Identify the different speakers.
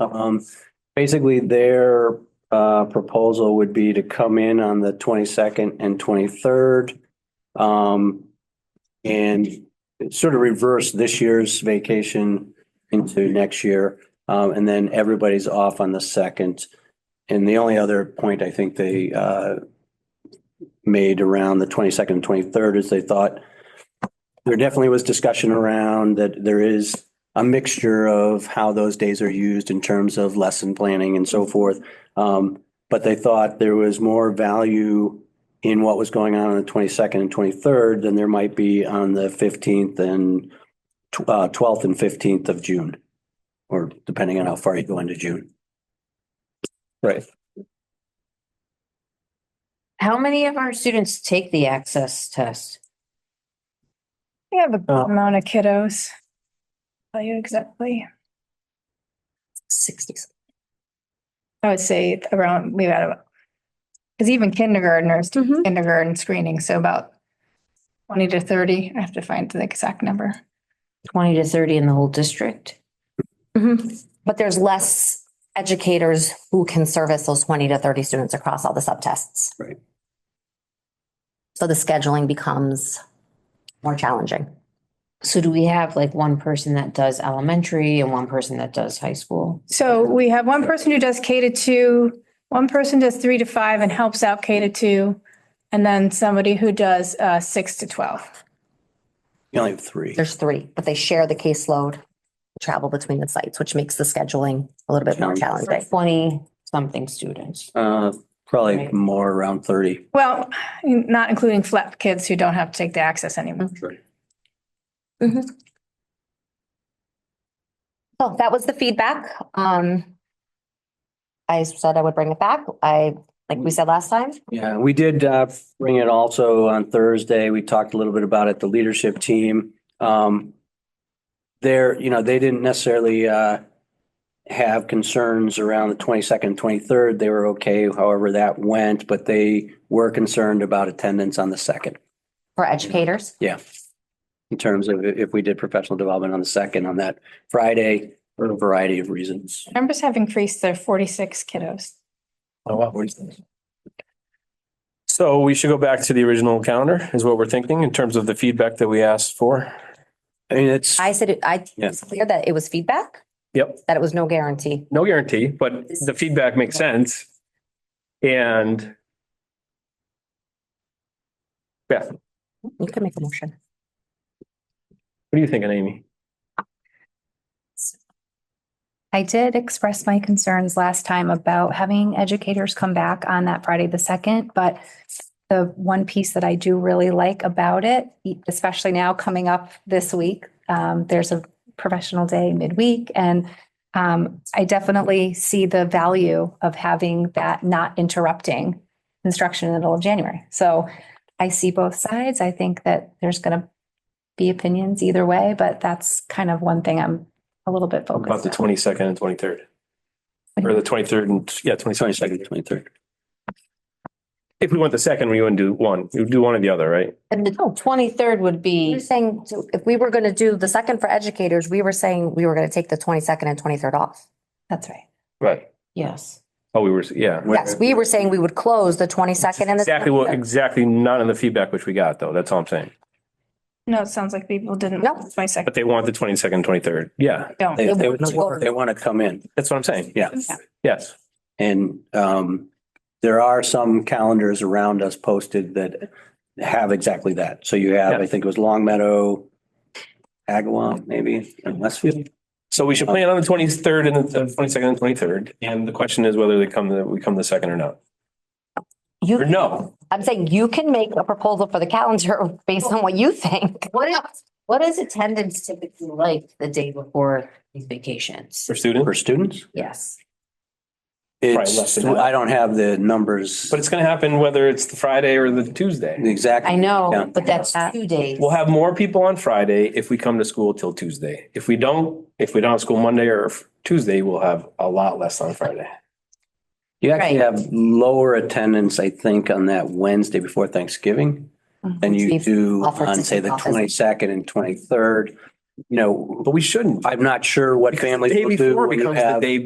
Speaker 1: Um, basically their, uh, proposal would be to come in on the twenty-second and twenty-third. Um, and sort of reverse this year's vacation into next year. Um, and then everybody's off on the second. And the only other point I think they, uh, made around the twenty-second and twenty-third is they thought there definitely was discussion around that there is a mixture of how those days are used in terms of lesson planning and so forth. Um, but they thought there was more value in what was going on on the twenty-second and twenty-third than there might be on the fifteenth and tw- uh, twelfth and fifteenth of June, or depending on how far you go into June.
Speaker 2: Right.
Speaker 3: How many of our students take the access test?
Speaker 4: We have a good
Speaker 1: Uh,
Speaker 4: amount of kiddos. Tell you exactly.
Speaker 3: Sixty.
Speaker 4: I would say around, we had about, because even kindergartners, do
Speaker 5: Mhm.
Speaker 4: kindergarten screening, so about twenty to thirty. I have to find the exact number.
Speaker 3: Twenty to thirty in the whole district?
Speaker 5: Mhm. But there's less educators who can service those twenty to thirty students across all the subtests.
Speaker 1: Right.
Speaker 5: So the scheduling becomes more challenging.
Speaker 3: So do we have like one person that does elementary and one person that does high school?
Speaker 4: So we have one person who does K to two, one person does three to five and helps out K to two, and then somebody who does uh six to twelve.
Speaker 1: You only have three.
Speaker 5: There's three, but they share the caseload, travel between the sites, which makes the scheduling a little bit more
Speaker 3: For
Speaker 5: challenging.
Speaker 3: twenty something students.
Speaker 1: Uh, probably
Speaker 3: Right.
Speaker 1: more around thirty.
Speaker 4: Well, not including flat kids who don't have to take the access anymore.
Speaker 5: So that was the feedback. Um, I said I would bring it back. I, like we said last time,
Speaker 1: Yeah, we did uh, bring it also on Thursday. We talked a little bit about it, the leadership team. Um, There, you know, they didn't necessarily uh, have concerns around the 22nd, 23rd. They were okay however that went, but they were concerned about attendance on the 2nd
Speaker 5: for educators,
Speaker 1: in terms of i- if we did professional development on the 2nd on that Friday for a variety of reasons.
Speaker 4: Numbers have increased. There are forty-six kiddos.
Speaker 2: Oh, wow. So we should go back to the original calendar is what we're thinking in terms of the feedback that we asked for.
Speaker 1: I mean, it's,
Speaker 5: I said, it- I,
Speaker 1: Yeah.
Speaker 5: it's clear that it was feedback,
Speaker 2: Yep,
Speaker 5: that it was no guarantee.
Speaker 2: no guarantee, but the feedback makes sense. And Beth, what
Speaker 5: You can make a motion.
Speaker 2: are you thinking, Amy?
Speaker 6: I did express my concerns last time about having educators come back on that Friday the second, but the one piece that I do really like about it, e, especially now coming up this week, um, there's a professional day midweek and um, I definitely see the value of having that not interrupting instruction in the middle of January. So I see both sides. I think that there's going to be opinions either way, but that's kind of one thing I'm a little bit focused on.
Speaker 2: About the twenty second and twenty third. Or the twenty third and, yeah, twenty
Speaker 1: 22nd,
Speaker 2: second.
Speaker 1: 23rd.
Speaker 2: If we want the second, we wouldn't do one. You would do one or the other, right?
Speaker 3: And
Speaker 5: Oh.
Speaker 3: the twenty-third would
Speaker 5: You're
Speaker 3: be,
Speaker 5: saying to- if we were going to do the second for educators, we were saying we were going to take the twenty-second and twenty-third off.
Speaker 6: That's right.
Speaker 2: Right.
Speaker 3: yes.
Speaker 2: Oh, we were, yeah.
Speaker 5: Yes, we were saying we would close the twenty-second and the.
Speaker 2: Exactly what,
Speaker 5: 23rd.
Speaker 2: exactly not in the feedback which we got though. That's all I'm saying.
Speaker 4: No, it sounds like people didn't.
Speaker 5: No.
Speaker 4: My
Speaker 2: But
Speaker 4: second,
Speaker 2: they want the twenty second, twenty third. Yeah,
Speaker 4: don't.
Speaker 1: They,
Speaker 5: It
Speaker 1: they
Speaker 5: wouldn't work.
Speaker 1: want to come in.
Speaker 2: that's what I'm saying.
Speaker 1: Yeah.
Speaker 2: Yes.
Speaker 1: And um, there are some calendars around us posted that have exactly that. So you have, I think it was Long Meadow, Agawam, maybe, and Westfield.
Speaker 2: So we should plan on the twenty third and the twenty second and twenty third. And the question is whether they come, the we come the second or not. Or
Speaker 5: You,
Speaker 2: no,
Speaker 5: I'm saying you can make a proposal for the calendar based on what you think.
Speaker 3: What is, what is attendance typically like the day before these vacations?
Speaker 2: for student,
Speaker 1: For students,
Speaker 3: Yes.
Speaker 2: Probably less
Speaker 1: it's,
Speaker 2: than that.
Speaker 1: I don't have the numbers.
Speaker 2: but it's going to happen whether it's the Friday or the Tuesday.
Speaker 3: I
Speaker 1: Exactly. Yeah.
Speaker 3: know, but that's two days.
Speaker 2: We'll have more people on Friday if we come to school till Tuesday. If we don't, if we don't have school Monday or Tuesday, we'll have a lot less on Friday.
Speaker 1: You actually
Speaker 3: Right.
Speaker 1: have lower attendance, I think, on that Wednesday before Thanksgiving
Speaker 3: Mm-hmm.
Speaker 1: than you
Speaker 5: Steve
Speaker 1: do
Speaker 5: offered to
Speaker 1: on, say,
Speaker 5: take
Speaker 1: the
Speaker 5: off as-
Speaker 1: 22nd and 23rd. You know,
Speaker 2: But we shouldn't.
Speaker 1: I'm not sure what
Speaker 2: Because the
Speaker 1: families
Speaker 2: day
Speaker 1: will do
Speaker 2: before
Speaker 1: when you
Speaker 2: becomes the
Speaker 1: have
Speaker 2: day